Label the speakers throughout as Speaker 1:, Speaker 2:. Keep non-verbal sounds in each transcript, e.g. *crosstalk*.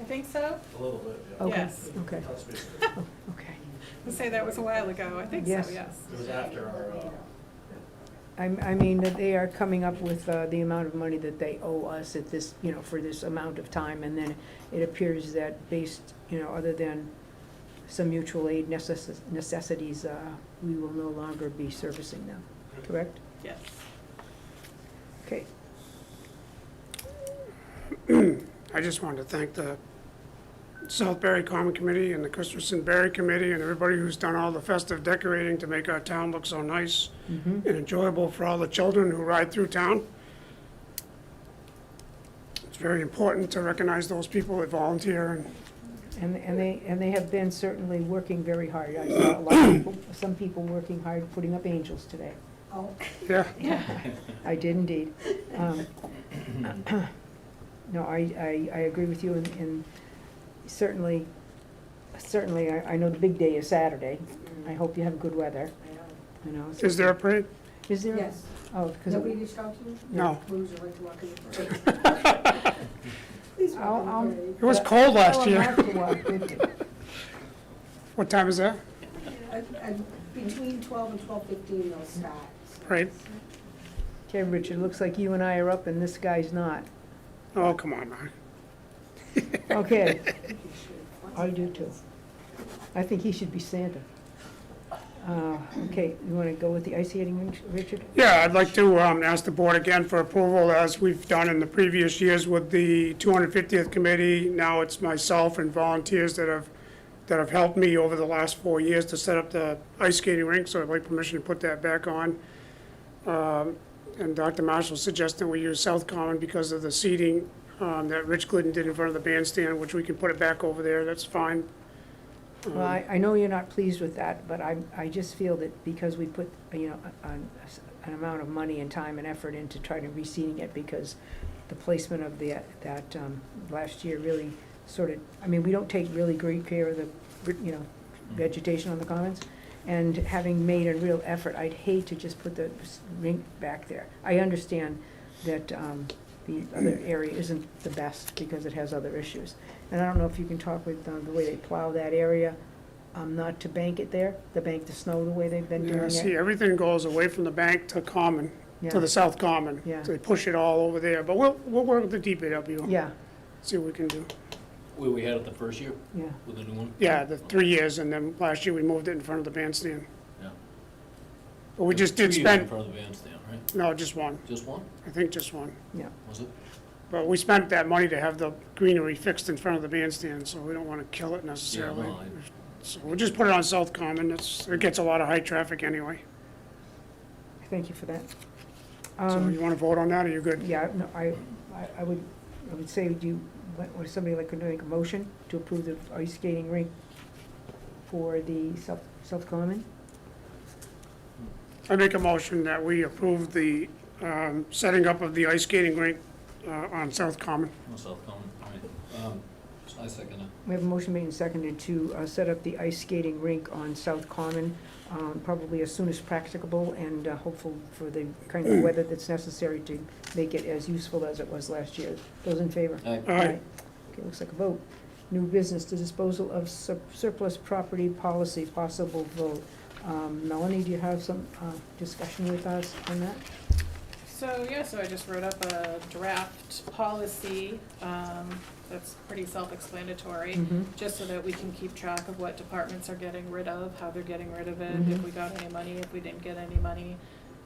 Speaker 1: I think so.
Speaker 2: A little bit, yeah.
Speaker 3: Okay,
Speaker 1: Yes.
Speaker 3: okay,
Speaker 2: Touch base.
Speaker 3: oh, okay.
Speaker 1: I say that was a while ago. I think so,
Speaker 3: Yes.
Speaker 1: yes.
Speaker 2: It was after our, uh,
Speaker 3: I, I mean, that they are coming up with uh, the amount of money that they owe us at this, you know, for this amount of time. And then it appears that based, you know, other than some mutual aid necess- necessities, uh, we will no longer be servicing them, correct?
Speaker 1: Yes.
Speaker 3: Okay,
Speaker 4: I just wanted to thank the Southbury Common Committee and the Christensen Berry Committee and everybody who's done all the festive decorating to make our town look so nice and enjoyable for all the children who ride through town. It's very important to recognize those people that volunteer and
Speaker 3: and, and they, and they have been certainly working very hard. I saw a lot of people, some people working hard, putting up angels today.
Speaker 4: Yeah,
Speaker 3: I did indeed. Um, *coughs* No, I, I, I agree with you, and, and certainly, certainly, I, I know the big day is Saturday. I hope you have good weather, you know. so-
Speaker 4: is there a parade?
Speaker 3: Is there?
Speaker 5: Yes.
Speaker 3: Oh, because,
Speaker 5: Nobody reached out to you?
Speaker 4: No.
Speaker 5: Blues are like to walk in the parade.
Speaker 3: *laughs*
Speaker 5: Please
Speaker 3: I'll,
Speaker 5: walk
Speaker 3: I'll.
Speaker 5: in the parade.
Speaker 4: It was cold last
Speaker 3: I'll
Speaker 4: year.
Speaker 3: have to walk with you. *laughs*
Speaker 4: What time is that?
Speaker 5: And- and Between twelve and twelve fifteen, they'll start.
Speaker 4: Parade?
Speaker 3: Okay, Richard, looks like you and I are up and this guy's not.
Speaker 4: Oh, come on, Mark.
Speaker 3: Okay, I
Speaker 5: I
Speaker 3: do too. I think he should be Santa. Uh, okay, you wanna go with the ice skating, Richard?
Speaker 4: Yeah, I'd like to um, ask the board again for approval, as we've done in the previous years with the 250th Committee. Now it's myself and volunteers that have, that have helped me over the last four years to set up the ice skating rink, so I'd like permission to put that back on. Um, And Dr. Marshall suggested we use South Common because of the seating um, that Rich Glidden did in front of the bandstand, which we can put it back over there, that's fine. Um,
Speaker 3: Well, I, I know you're not pleased with that, but I, I just feel that because we put, you know, a- an, an amount of money and time and effort into trying to reseeding it, because the placement of the, that, um, last year really sort of, I mean, we don't take really great care of the, you know, vegetation on the commons, and having made a real effort, I'd hate to just put the s- rink back there. I understand that, um, the other
Speaker 4: *clears throat*
Speaker 3: area isn't the best because it has other issues. And I don't know if you can talk with uh, the way they plow that area, um, not to bank it there, to bank the snow the way they've been
Speaker 4: Yeah,
Speaker 3: doing
Speaker 4: see,
Speaker 3: it.
Speaker 4: everything goes away from the bank to Common, to the
Speaker 3: Yeah,
Speaker 4: South Common.
Speaker 3: Yeah.
Speaker 4: So they push it all over there, but we'll, we'll work with the DPW,
Speaker 3: yeah,
Speaker 4: see what we can do.
Speaker 6: Where we had it the first year
Speaker 3: yeah.
Speaker 6: with the new one?
Speaker 4: Yeah, the three years, and then last year we moved it in front of the bandstand.
Speaker 6: Yeah.
Speaker 4: But we just did
Speaker 6: Two years in
Speaker 4: spend,
Speaker 6: front of the bandstand, right?
Speaker 4: no, just one,
Speaker 6: Just one,
Speaker 4: I think just one.
Speaker 6: was it?
Speaker 4: But we spent that money to have the greenery fixed in front of the bandstand, so we don't want to kill it
Speaker 6: Yeah,
Speaker 4: necessarily.
Speaker 6: well, I-
Speaker 4: So we'll just put it on South Common, it's, it gets a lot of high traffic anyway.
Speaker 3: Thank you for that.
Speaker 4: So
Speaker 3: Um,
Speaker 4: you want to vote on that, or you good?
Speaker 3: Yeah, no, I, I- I would, I would say, do you, what- would somebody like to make a motion to approve the ice skating rink for the South, South Common?
Speaker 4: I make a motion that we approve the, um, setting up of the ice skating rink, uh, on South Common.
Speaker 6: No, South Common, right. Um, I second it.
Speaker 3: We have a motion made and seconded to uh, set up the ice skating rink on South Common, um, probably as soon as practicable and uh, hopeful for the kind of weather that's necessary to make it as useful as it was last year. Those in favor?
Speaker 6: Aye.
Speaker 4: All right,
Speaker 3: Okay, looks like a vote. New business, the disposal of sur- surplus property policy, possible vote. Um, Melanie, do you have some uh, discussion with us on that?
Speaker 1: So, yeah, so I just wrote up a draft policy, um, that's pretty self-explanatory.
Speaker 3: Mm-hmm.
Speaker 1: just so that we can keep track of what departments are getting rid of, how they're getting rid of it, if
Speaker 3: Mhm.
Speaker 1: we got any money, if we didn't get any money,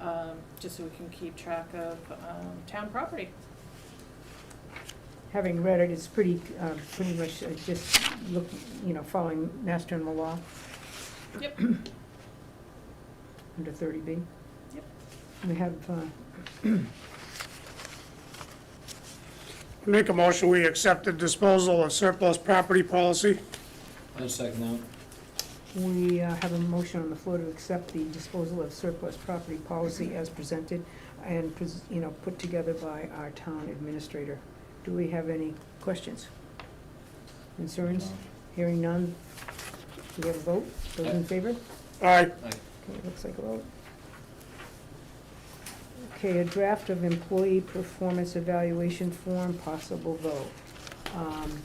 Speaker 1: um, just so we can keep track of, um, town property.
Speaker 3: having read it, it's pretty, uh, pretty much uh, just look, you know, following Mass General Law.
Speaker 1: Yep.
Speaker 3: Under thirty B.
Speaker 1: Yep.
Speaker 3: We have, uh,
Speaker 4: I make a motion, we accept the disposal of surplus property policy.
Speaker 6: I second that.
Speaker 3: we uh, have a motion on the floor to accept the disposal of surplus property policy as presented and, pres- you know, put together by our town administrator. Do we have any questions? Concerns?
Speaker 6: Um,
Speaker 3: Hearing none. Do we have a vote? Those in favor?
Speaker 4: All right,
Speaker 3: Okay, it looks like a vote. Okay, a draft of employee performance evaluation form, possible vote. Um,